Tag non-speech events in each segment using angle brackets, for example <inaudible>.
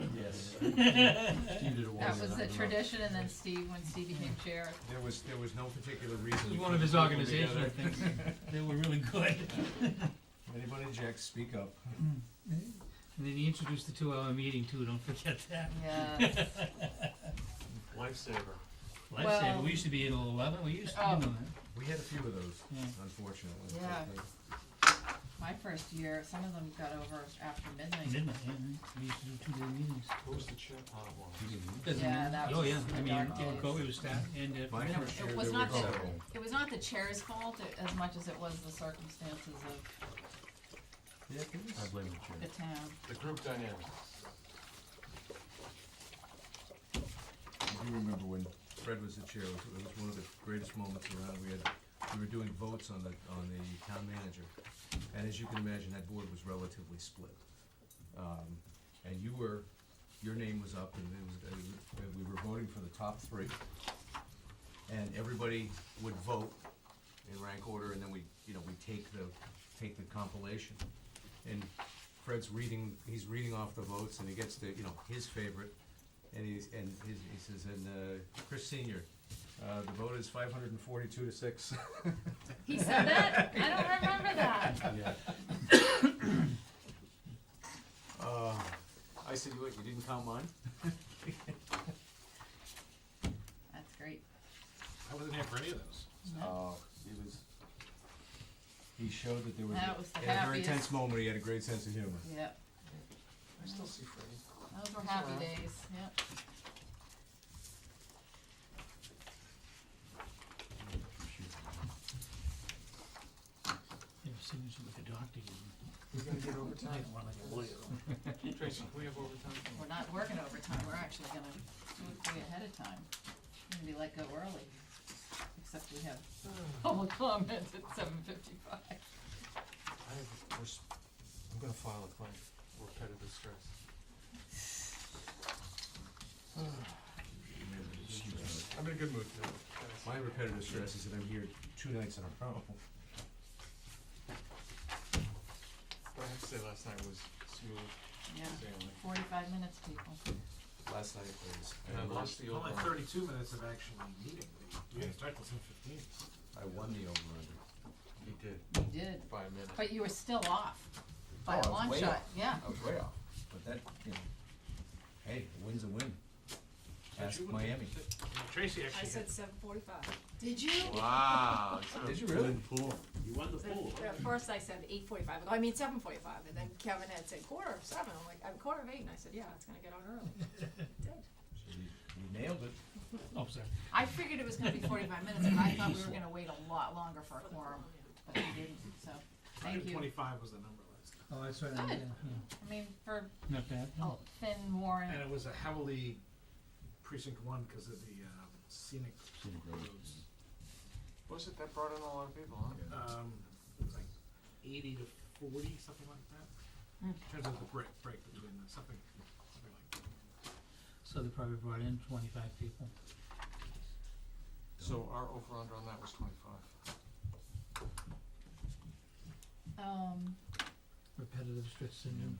<laughs> Steve did it once. That was the I don't know. tradition, and then Steve, when Steve became chair, There was, there was no particular reason. This we was one of put his people organizational together. things. They were really <laughs> good. If Anybody objects, speak up. And then he introduced the two-hour meeting too, don't forget that. yeah, Lifesaver. Lifesaver, Well- we used to be at eleven, we used to be Oh. on that. We had a few of those, Yeah. unfortunately. Yeah. my first year, some of them got over after midnight. Midnight, yeah, we used to do two-day meetings. Who was the chair? Oh, well. Doesn't Yeah, matter. that Oh, was yeah, the I mean, dark yeah, days. COVID was that, and uh, My you know, first year, It there was were not the, several. it was not the chair's fault a- as much as it was the circumstances of Yeah, it was- blame the chair. the town. The group dynamic. I do remember when Fred was the chair, it was, it was one of the greatest moments around, we had, we were doing votes on the, on the town manager. And as you can imagine, that board was relatively split. Um, and you were, your name was up and it was, uh, we were voting for the top three. And everybody would vote in rank order and then we, you know, we take the, take the compilation. And Fred's reading, he's reading off the votes and he gets the, you know, his favorite. And he's, and his, he says, and, uh, Chris Senior, uh, the vote is five hundred and forty-two to six. <laughs> He said that? I don't remember that. Uh, I said, wait, you didn't count mine? That's great. I wasn't here for any of those. No, Oh, he was, he showed that there was, That was the he had a very happiest. tense moment, he had a great sense of humor. Yep, I still see Freddie. those were happy days, yep. you know, signature with the doctor. you We're gonna get overtime. know, one like a <laughs> lawyer. <laughs> Tracy, can we have overtime? <sighs> We're not working overtime, we're actually gonna do it way ahead of time. Maybe let go early, except we have public <laughs> comments at seven fifty-five. I have, we're, s- I'm gonna file a claim, repetitive stress. I'm in a good mood today. My repetitive stress is that I'm here two nights in a row. What I have to say last night was smooth Yeah, sailing. forty-five minutes, people. Last night was, And I lost the Only over. thirty-two minutes of actually meeting, you didn't start till ten fifteen. I won the over He did, You did, by a minute. but you were still off Oh, I by a was long way shot, off. yeah. I was way off, but that, you know, hey, a win's a win. Ask Miami. Tracy I actually, said seven forty-five. Did you? Wow. Did you really? At first I said eight forty-five, I mean seven forty-five, and then Kevin had said quarter of seven, I'm like, I'm quarter of eight, and I said, yeah, it's gonna get on early. <laughs> It did. So you- You nailed it. Oh, sorry. I figured it was gonna be forty-five minutes, and I thought we were gonna wait a lot longer for a quorum, but we didn't, so, thank hundred you. twenty-five was the number last night. Oh, that's right. Good. yeah, yeah. I mean, for oh, Not bad. a thin warrant, And it was a heavily precinct one because of the um, scenic roads. Was it, that brought in a lot of people, huh? Um, it was like eighty to forty, something like that. In terms of the break, break between the, something, something like that. So they probably brought in twenty-five people. So our over under on that was twenty-five. um, repetitive stress syndrome.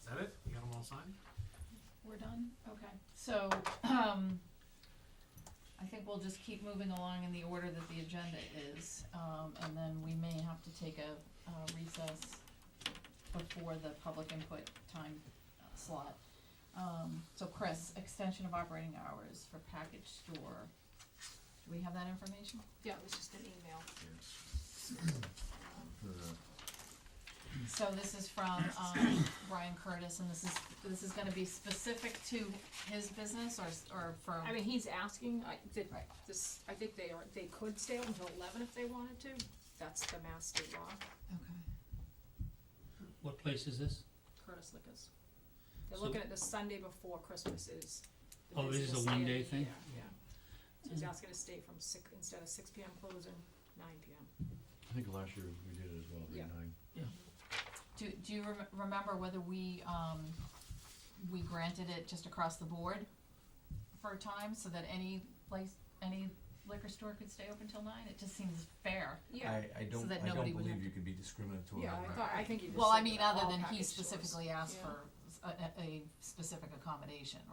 Is that it? You got them all signed? we're done, okay. So, um, I think we'll just keep moving along in the order that the agenda is, um, and then we may have to take a, uh recess before the public input time uh, slot. Um, so Chris, extension of operating hours for package store, do we have that information? Yeah, it was just an email. So this is from, um, Brian Curtis, and this is, this is gonna be specific to his business or, s- or for? I mean, he's asking, I, did, Right. this, I think they are, they could stay open until eleven if they wanted to, that's the mass state law, Okay. What place is this? Curtis Liquors. They're So- looking at the Sunday before Christmas is. the Oh, this is busiest a day of one-day the thing? year, Yeah, so he's Mm. asking to stay from six, instead of six P M closing, nine P M. I think last year we did it as well, Yeah. nine. Do, do you rem- remember whether we, um, we granted it just across the board for a time so that any place, any liquor store could stay open till nine? It just seems fair. Yeah, I, I don't, that I nobody don't would believe have to- you could be discriminatory yeah, on I that. thought, I think he just Well, I said mean, that all other than he package stores. specifically asked Yeah. for s- a, a- a specific accommodation, right?